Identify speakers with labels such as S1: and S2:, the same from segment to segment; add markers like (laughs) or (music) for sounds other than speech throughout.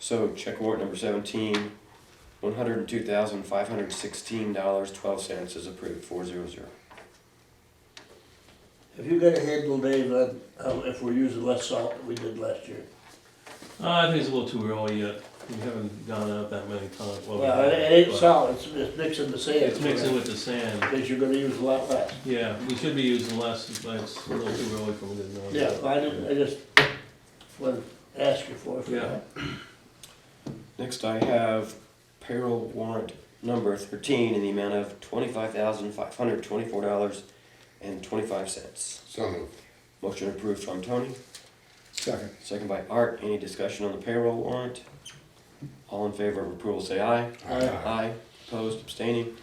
S1: So check warrant number seventeen, one hundred and two thousand, five hundred and sixteen dollars, twelve cents is approved, four zero zero.
S2: Have you got a handle, Dave, on uh, if we're using less salt than we did last year?
S3: Uh, I think it's a little too early yet. We haven't gone out that many times. we
S2: Well, it
S3: have,
S2: it ain't
S3: but
S2: salt, it's, it's mixing the sand.
S3: It's mixing with the sand.
S2: Because you're gonna use a lot less.
S3: Yeah, we should be using less, but it's a little too early for me to know.
S2: Yeah, I didn't, I just wanted to ask you for it. for
S3: Yeah.
S2: that.
S1: Next I have payroll warrant number thirteen in the amount of twenty-five thousand, five hundred twenty-four dollars and twenty-five cents.
S4: So moved.
S1: Motion approved from Tony,
S4: Second.
S1: second by Art, any discussion on the payroll warrant? All in favor of approval, say aye.
S2: Aye.
S1: Aye, opposed, abstaining.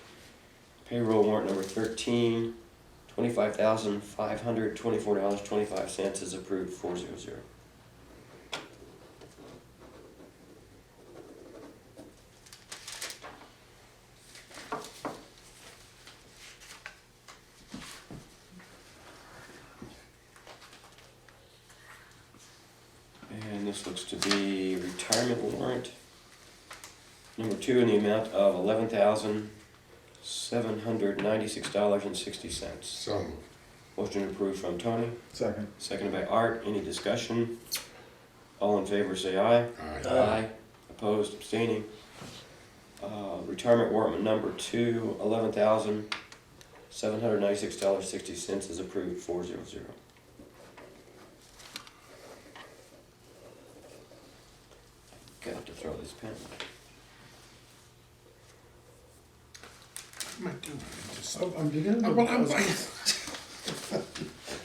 S1: Payroll warrant number thirteen, twenty-five thousand, five hundred, twenty-four dollars, twenty-five cents is approved, four zero zero. And this looks to be retirement warrant. Number two, in the amount of eleven thousand, seven hundred ninety-six dollars and sixty cents.
S4: So moved.
S1: Motion approved from Tony,
S5: Second.
S1: seconded by Art, any discussion? All in favor, say aye.
S4: Aye.
S2: Aye.
S1: Uh, Opposed, abstaining. Uh, retirement warrant number two, eleven thousand, seven hundred ninety-six dollars, sixty cents is approved, four zero zero. Got to throw this pen away.
S4: What am I doing? I just-
S5: Oh, I'm beginning to.
S4: Oh, Well, I'm like,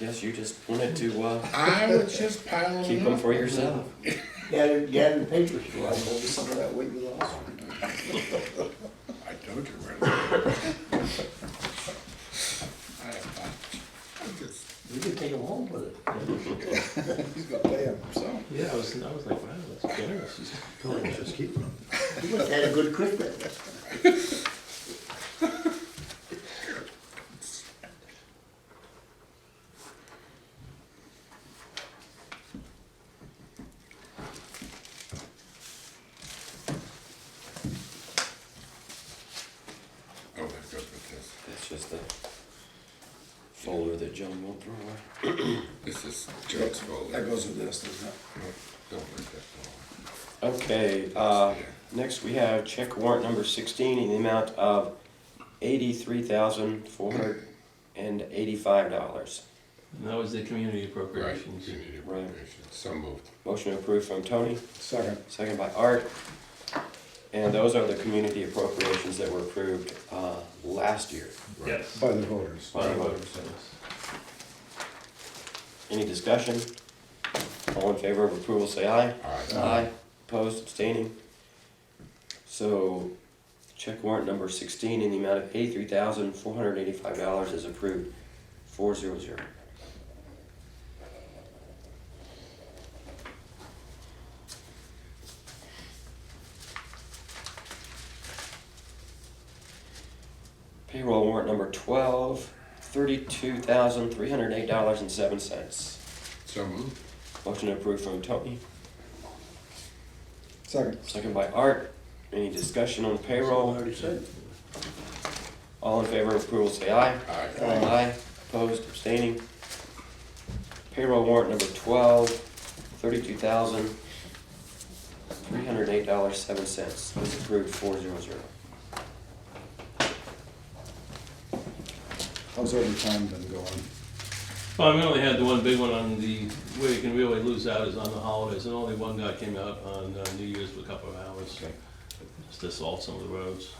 S1: Yes, you just wanted to, uh,
S4: I was just piling
S1: keep
S4: up.
S1: them for yourself.
S2: Gather, gather the papers for
S5: I'll
S2: us.
S5: hold some of that weight you lost.
S4: I told you right. I (laughs) have, I just,
S2: We can take them home with it.
S5: He's gonna pay him, so.
S3: Yeah, I was, I was like, wow, that's generous.
S5: Just keep him.
S2: You must have had a good Christmas.
S4: oh, that goes with this.
S1: That's just the folder that John won't throw away.
S4: This is Joe's folder.
S5: That goes with this, doesn't it?
S4: Don't break that folder.
S1: Okay, uh, next we have check warrant number sixteen in the amount of eighty-three thousand, four hundred and eighty-five dollars.
S3: And that was the community
S4: Right,
S3: appropriations.
S4: you need
S1: Right.
S4: appropriations. So moved.
S1: Motion approved from Tony,
S5: Second.
S1: second by Art. And those are the community appropriations that were approved, uh, last year.
S4: Right.
S3: Yes.
S5: By the voters.
S1: By the voters. Any discussion? All in favor of approval, say aye.
S4: Aye.
S1: Aye. Opposed, abstaining. So, check warrant number sixteen in the amount of eighty-three thousand, four hundred eighty-five dollars is approved, four zero zero. Payroll warrant number twelve, thirty-two thousand, three hundred eight dollars and seven cents.
S4: So moved.
S1: Motion approved from Tony.
S5: Second.
S1: Second by Art. Any discussion on the
S2: I
S1: payroll?
S2: already said.
S1: All in favor of approval, say aye.
S4: Aye.
S1: Aye. Opposed, abstaining. Payroll warrant number twelve, thirty-two thousand, three hundred eight dollars, seven cents. Is approved, four zero zero.
S5: How's overtime been going?
S3: Well, we only had the one big one on the, where you can really lose out is on the holidays, and only one guy came out on uh, New Year's for a couple of hours.
S1: Okay.
S3: Just to salt some of the roads.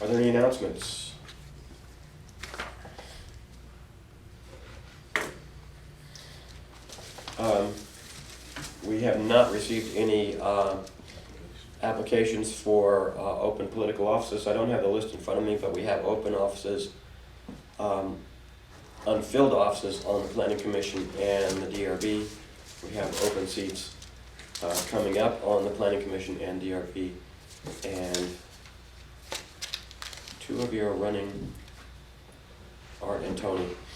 S1: Are there any announcements? Um, We have not received any uh, applications for uh, open political offices. I don't have the list in front of me, but we have open offices, um, unfilled offices on the planning commission and the DRB. We have open seats uh, coming up on the planning commission and DRB. And two of you are running, Art and Tony.